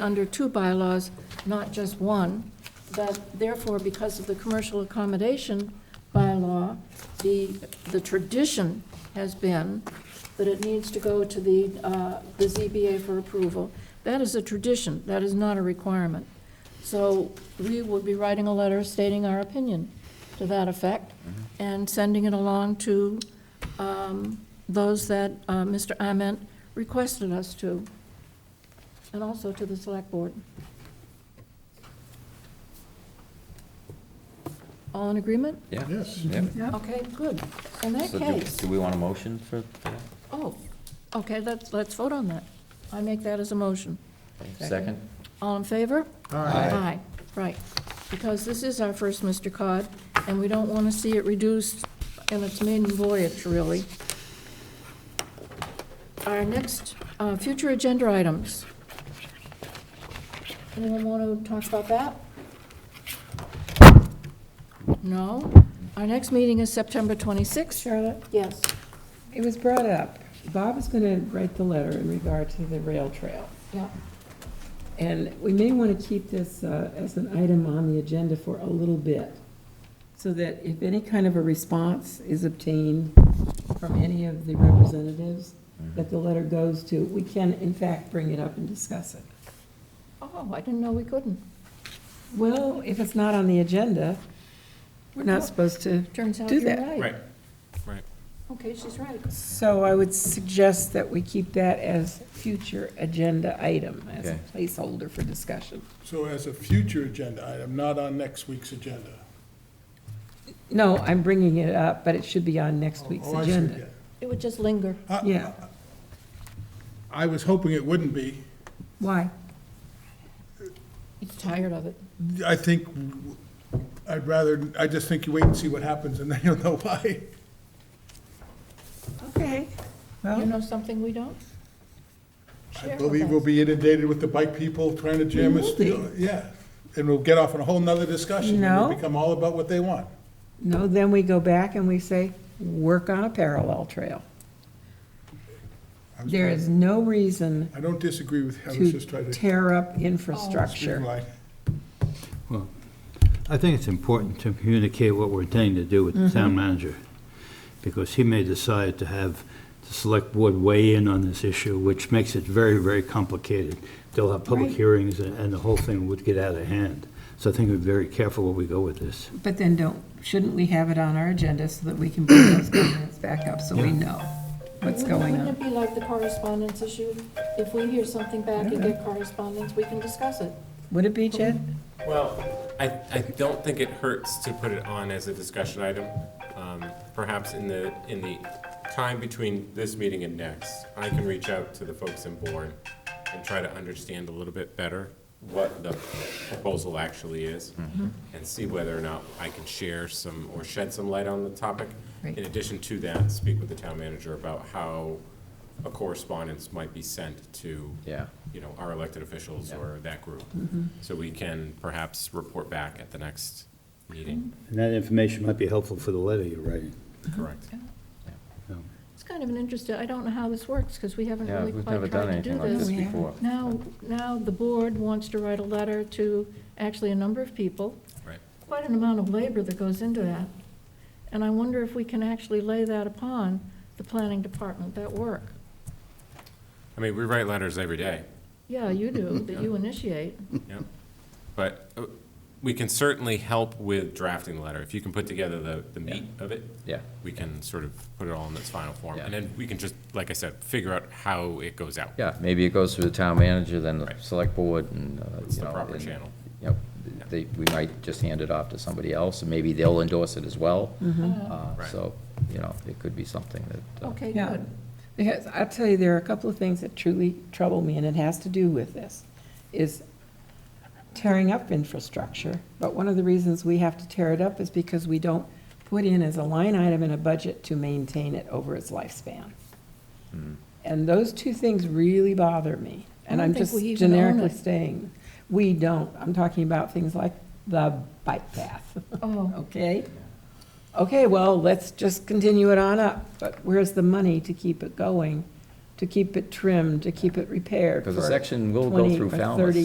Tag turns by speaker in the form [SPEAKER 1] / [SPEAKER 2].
[SPEAKER 1] under two bylaws, not just one, that therefore, because of the commercial accommodation bylaw, the, the tradition has been that it needs to go to the, uh, the ZBA for approval. That is a tradition, that is not a requirement. So we would be writing a letter stating our opinion to that effect and sending it along to um, those that uh, Mr. Ament requested us to, and also to the Select Board. All in agreement?
[SPEAKER 2] Yeah.
[SPEAKER 3] Yes.
[SPEAKER 2] Yeah.
[SPEAKER 1] Okay, good. In that
[SPEAKER 2] So do-
[SPEAKER 1] case,
[SPEAKER 2] Do we want a motion for for that?
[SPEAKER 1] oh, okay, let's, let's vote on that. I make that as a motion.
[SPEAKER 2] Second?
[SPEAKER 1] All in favor?
[SPEAKER 2] Aye.
[SPEAKER 1] Aye, right, because this is our first Mr. Cod, and we don't want to see it reduced in its maiden voyage, really. Our next, uh, future agenda items. Anyone want to talk about that? No? Our next meeting is September 26th.
[SPEAKER 4] Charlotte,
[SPEAKER 1] Yes.
[SPEAKER 4] it was brought up, Bob is gonna write the letter in regard to the rail trail.
[SPEAKER 1] Yeah.
[SPEAKER 4] And we may wanna keep this uh, as an item on the agenda for a little bit, so that if any kind of a response is obtained from any of the representatives
[SPEAKER 2] Mm-hmm.
[SPEAKER 4] that the letter goes to, we can in fact bring it up and discuss it.
[SPEAKER 1] Oh, I didn't know we couldn't.
[SPEAKER 4] Well, if it's not on the agenda, we're not supposed to,
[SPEAKER 1] Turns out
[SPEAKER 4] Do
[SPEAKER 1] you're
[SPEAKER 4] that.
[SPEAKER 1] right.
[SPEAKER 5] Right, right.
[SPEAKER 1] Okay, she's right.
[SPEAKER 4] so I would suggest that we keep that as future agenda item, as a
[SPEAKER 2] Okay.
[SPEAKER 4] placeholder for discussion.
[SPEAKER 3] So as a future agenda item, not on next week's agenda.
[SPEAKER 4] No, I'm bringing it up, but it should be on next week's
[SPEAKER 3] Oh, I see,
[SPEAKER 4] agenda.
[SPEAKER 1] It would just linger.
[SPEAKER 3] yeah. I-
[SPEAKER 4] Yeah,
[SPEAKER 3] I was hoping it wouldn't be.
[SPEAKER 4] why?
[SPEAKER 1] He's tired of it.
[SPEAKER 3] I think, I'd rather, I just think you wait and see what happens, and then you'll know why.
[SPEAKER 4] Okay.
[SPEAKER 1] You
[SPEAKER 4] Well,
[SPEAKER 1] know something we don't?
[SPEAKER 3] I believe we'll be inundated with the bike people trying to jam us.
[SPEAKER 4] We will
[SPEAKER 3] Yeah, and we'll get off on a whole nother discussion. and
[SPEAKER 4] No.
[SPEAKER 3] It'll become all about what they want.
[SPEAKER 4] no, then we go back and we say, work on a parallel trail.
[SPEAKER 3] I was
[SPEAKER 4] There
[SPEAKER 3] trying-
[SPEAKER 4] is no reason
[SPEAKER 3] I don't disagree with you, I was just trying
[SPEAKER 4] to
[SPEAKER 3] to. Oh,
[SPEAKER 4] tear up
[SPEAKER 3] speak
[SPEAKER 4] infrastructure.
[SPEAKER 3] line.
[SPEAKER 6] I think it's important to communicate what we're intending to do with the town manager, because he may decide to have the select board weigh in on this issue, which makes it very, very complicated. They'll have public
[SPEAKER 4] Right.
[SPEAKER 6] hearings, and and the whole thing would get out of hand. So I think we're very careful where we go with this.
[SPEAKER 4] But then don't, shouldn't we have it on our agenda so that we can bring those comments back up so we know what's going
[SPEAKER 1] Wouldn't
[SPEAKER 4] on?
[SPEAKER 1] it be like the correspondence issue? If we hear something back and get correspondence, we can discuss it.
[SPEAKER 4] Would it be, Jed?
[SPEAKER 5] Well, I, I don't think it hurts to put it on as a discussion item. Um, Perhaps in the, in the time between this meeting and next, I can reach out to the folks in Bourne and try to understand a little bit better what the proposal actually is and see whether or not I can share some, or shed some light on the topic.
[SPEAKER 4] Right.
[SPEAKER 5] In addition to that, speak with the town manager about how a correspondence might be sent to
[SPEAKER 2] Yeah.
[SPEAKER 5] you know, our elected officials or that group.
[SPEAKER 2] Mm-hmm.
[SPEAKER 5] So we can perhaps report back at the next meeting.
[SPEAKER 6] And that information might be helpful for the letter you're writing.
[SPEAKER 2] Mm-hmm.
[SPEAKER 5] Correct.
[SPEAKER 1] It's kind of an interesting, I don't know how this works, because we haven't
[SPEAKER 2] Yeah,
[SPEAKER 1] really
[SPEAKER 2] we've never
[SPEAKER 1] quite
[SPEAKER 2] done
[SPEAKER 1] tried to do
[SPEAKER 2] anything like
[SPEAKER 1] this.
[SPEAKER 2] this
[SPEAKER 4] We haven't.
[SPEAKER 2] before.
[SPEAKER 1] Now, now the board wants to write a letter to actually a number of people.
[SPEAKER 5] Right.
[SPEAKER 1] Quite an amount of labor that goes into that. And I wonder if we can actually lay that upon the planning department, that work.
[SPEAKER 5] I mean, we write letters every day,
[SPEAKER 1] Yeah, you do, that you initiate.
[SPEAKER 5] yeah. But uh, we can certainly help with drafting the letter. If you can put together the, the meat of it,
[SPEAKER 2] Yeah.
[SPEAKER 5] we can sort of put it all in its final form.
[SPEAKER 2] Yeah.
[SPEAKER 5] And then we can just, like I said, figure out how it goes out.
[SPEAKER 2] Yeah, maybe it goes through the town manager, then the
[SPEAKER 5] Right.
[SPEAKER 2] select board, and, uh,
[SPEAKER 5] It's
[SPEAKER 2] you
[SPEAKER 5] the
[SPEAKER 2] know.
[SPEAKER 5] proper
[SPEAKER 2] and,
[SPEAKER 5] channel.
[SPEAKER 2] You know, they, we might just hand it off to somebody else, and maybe they'll endorse it as well. Uh,
[SPEAKER 5] Right.
[SPEAKER 2] So, you know, it could be something that. uh,
[SPEAKER 1] Okay,
[SPEAKER 4] Yeah,
[SPEAKER 1] good.
[SPEAKER 4] because I'll tell you, there are a couple of things that truly trouble me, and it has to do with this, is tearing up infrastructure. But one of the reasons we have to tear it up is because we don't put in as a line item in a budget to maintain it over its lifespan. And those two things really bother me, and
[SPEAKER 1] I
[SPEAKER 4] I'm
[SPEAKER 1] don't think
[SPEAKER 4] just
[SPEAKER 1] we even own
[SPEAKER 4] generically
[SPEAKER 1] it.
[SPEAKER 4] saying, we don't. I'm talking about things like the bike path.
[SPEAKER 1] Oh.
[SPEAKER 4] Okay? Okay, well, let's just continue it on up, but where's the money to keep it going, to keep it trimmed, to keep it repaired?
[SPEAKER 2] Because the
[SPEAKER 4] for
[SPEAKER 2] section will go
[SPEAKER 4] 20
[SPEAKER 2] through
[SPEAKER 4] or
[SPEAKER 2] Falmouth.
[SPEAKER 4] 30